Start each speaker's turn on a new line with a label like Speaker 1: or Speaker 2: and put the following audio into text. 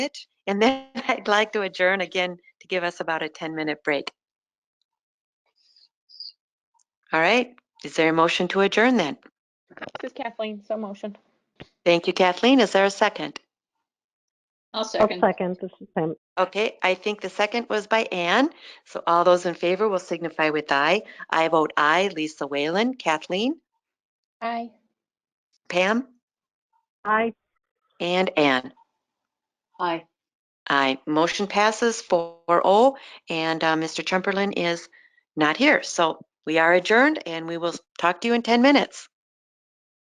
Speaker 1: it, and then I'd like to adjourn again to give us about a 10-minute break. All right, is there a motion to adjourn then?
Speaker 2: This is Kathleen, so motion.
Speaker 1: Thank you, Kathleen. Is there a second?
Speaker 3: I'll
Speaker 4: I'll
Speaker 3: second.
Speaker 4: second, this is Pam.
Speaker 1: Okay, I think the second was by Anne. So all those in favor will signify with aye. I vote aye. Lisa Whalen, Kathleen,
Speaker 2: Aye.
Speaker 1: Pam,
Speaker 4: Aye,
Speaker 1: and Anne.
Speaker 3: Aye.
Speaker 1: Aye. Motion passes 4-0, and uh, Mr. Chumperland is not here. So we are adjourned, and we will talk to you in 10 minutes.